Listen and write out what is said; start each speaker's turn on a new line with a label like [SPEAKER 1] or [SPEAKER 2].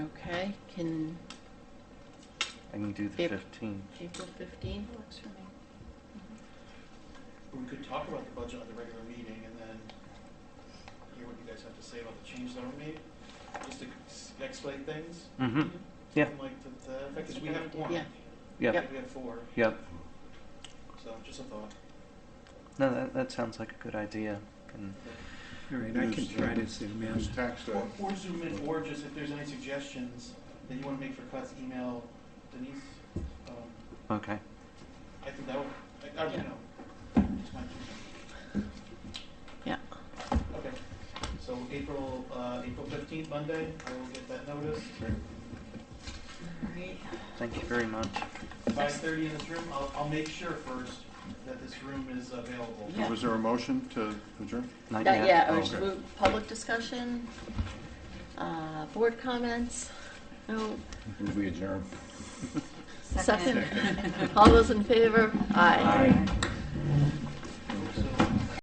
[SPEAKER 1] Okay, can
[SPEAKER 2] I can do the
[SPEAKER 1] Yep.
[SPEAKER 2] 15th.
[SPEAKER 1] April 15 works for me.
[SPEAKER 3] We could talk about the budget at the regular meeting and then hear what you guys have to say about the changes that were made, just to s- explain things.
[SPEAKER 2] Mm-hmm. Yeah.
[SPEAKER 3] And Like, the, the fact is, we have one.
[SPEAKER 1] Yeah.
[SPEAKER 2] Yep.
[SPEAKER 1] Yep.
[SPEAKER 3] We have four,
[SPEAKER 2] Yep.
[SPEAKER 3] so just a thought.
[SPEAKER 2] No, that, that sounds like a good idea. And
[SPEAKER 4] All right, I can try to zoom in.
[SPEAKER 5] Who's Uh, tax day?
[SPEAKER 3] Or, or zoom in, or just if there's any suggestions that you wanna make for cuts, email Denise. Um,
[SPEAKER 2] okay.
[SPEAKER 3] I think that would, I, I, you
[SPEAKER 1] Yeah.
[SPEAKER 3] know, just my two
[SPEAKER 1] Yeah.
[SPEAKER 3] cents. Okay, so April, uh, April fifteenth, Monday, I will get that notice.
[SPEAKER 1] Great.
[SPEAKER 2] Thank you very much.
[SPEAKER 3] Five thirty in this room, I'll, I'll make sure first that this room is available.
[SPEAKER 1] Yeah.
[SPEAKER 5] Was there a motion to adjourn?
[SPEAKER 2] Not
[SPEAKER 1] Not yet,
[SPEAKER 2] Oh,
[SPEAKER 1] or
[SPEAKER 2] okay.
[SPEAKER 1] move public discussion, uh, board comments, no,
[SPEAKER 5] Move adjourn.
[SPEAKER 1] second. All those in favor? Aye.